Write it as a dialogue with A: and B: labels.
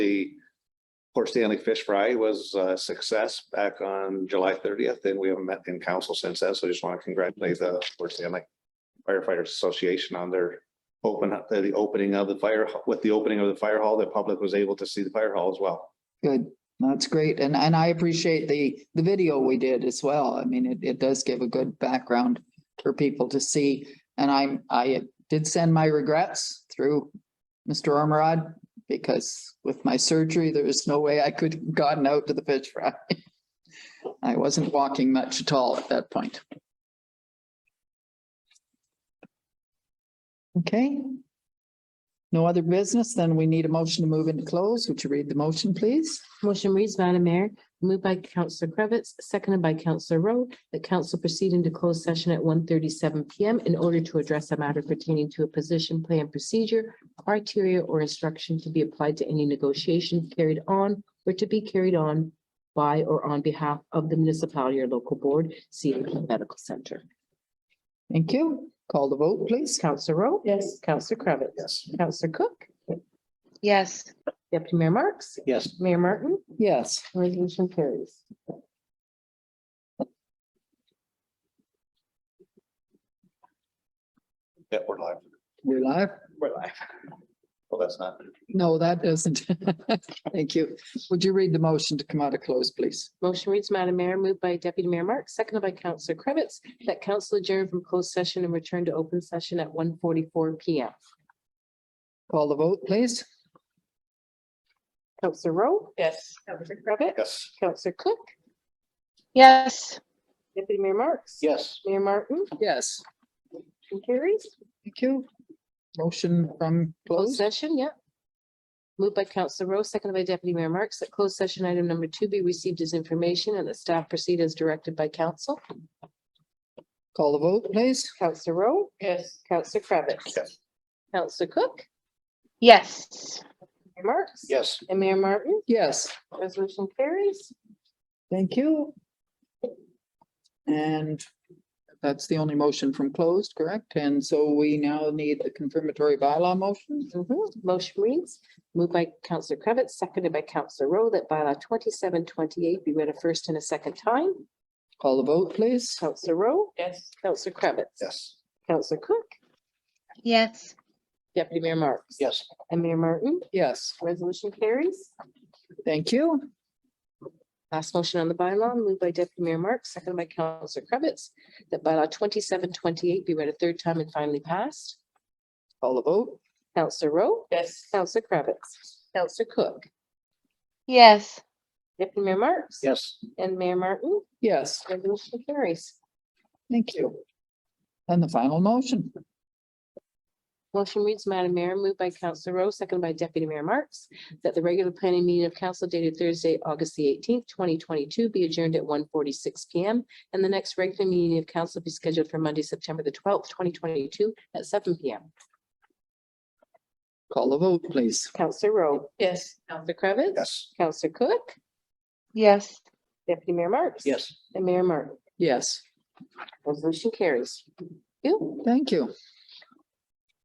A: The Port Stanley Fish Fry was a success back on July thirtieth, and we haven't met in council since then, so I just want to congratulate the Port Stanley firefighters association on their open, uh, the opening of the fire, with the opening of the fire hall, the public was able to see the fire hall as well.
B: Good, that's great. And, and I appreciate the, the video we did as well. I mean, it, it does give a good background for people to see. And I, I did send my regrets through Mr. Ormerod because with my surgery, there was no way I could have gotten out to the fish fry. I wasn't walking much at all at that point. Okay. No other business, then we need a motion to move into close. Would you read the motion, please?
C: Motion reads, Madam Mayor, moved by Counselor Cravitz, seconded by Counselor Rowe, that council proceed into closed session at 1:37 PM in order to address a matter pertaining to a position, plan, procedure, criteria, or instruction to be applied to any negotiation carried on or to be carried on by or on behalf of the municipality or local board, CHP Medical Center.
B: Thank you. Call the vote, please.
C: Counselor Rowe? Yes. Counselor Cravitz?
A: Yes.
C: Counselor Cook?
D: Yes.
C: Deputy Mayor Marks?
A: Yes.
C: Mayor Martin?
B: Yes.
C: Resolution carries.
A: Yeah, we're live.
B: We're live?
A: We're live. Well, that's not.
B: No, that doesn't. Thank you. Would you read the motion to come out of close, please?
C: Motion reads, Madam Mayor, moved by Deputy Mayor Marks, seconded by Councillor Cravitz, that council adjourn from closed session and return to open session at one forty-four P M.
B: Call the vote, please.
C: Councillor Rowe? Yes. Councillor Cravitz?
A: Yes.
C: Councillor Cook?
D: Yes.
C: Deputy Mayor Marks?
A: Yes.
C: Mayor Martin?
B: Yes.
C: Motion Carries?
B: Thank you. Motion from close.
C: Closed session, yeah. Moved by Councillor Rowe, seconded by Deputy Mayor Marks, that closed session item number two be received as information and the staff proceed as directed by council.
B: Call the vote, please.
C: Councillor Rowe? Yes. Councillor Cravitz?
A: Yes.
C: Councillor Cook?
D: Yes.
C: Mayor Marks?
A: Yes.
C: And Mayor Martin?
B: Yes,
C: Resolution carries.
B: thank you. And that's the only motion from closed, correct? And so we now need the confirmatory bylaw motion.
C: Mhm. Motion reads, moved by Counselor Cravitz, seconded by Counselor Rowe, that bylaw twenty-seven twenty-eight be read a first and a second time.
B: Call the vote, please.
C: Counselor Rowe? Yes. Counselor Cravitz?
A: Yes.
C: Counselor Cook?
D: Yes.
C: Deputy Mayor Marks?
A: Yes.
C: And Mayor Martin?
B: Yes,
C: Resolution carries.
B: thank you.
C: Last motion on the bylaw, moved by Deputy Mayor Marks, seconded by Counselor Cravitz, that bylaw twenty-seven twenty-eight be read a third time and finally passed.
B: Call the vote.
C: Counselor Rowe? Yes. Counselor Cravitz? Counselor Cook?
D: Yes.
C: Deputy Mayor Marks?
A: Yes.
C: And Mayor Martin?
B: Yes,
C: Resolution carries.
B: thank you. And the final motion.
C: Motion reads, Madam Mayor, moved by Councillor Rowe, seconded by Deputy Mayor Marks, that the regular planning meeting of council dated Thursday, August the eighteenth, twenty twenty-two be adjourned at 1:46 P M. And the next regular meeting of council be scheduled for Monday, September the twelfth, twenty twenty-two at seven P M.
B: Call the vote, please.
C: Councillor Rowe. Yes. Counselor Cravitz.
A: Yes.
C: Counselor Cook.
D: Yes.
C: Deputy Mayor Marks.
A: Yes.
C: And Mayor Martin.
B: Yes,
C: Resolution carries. Thank You.
B: thank you.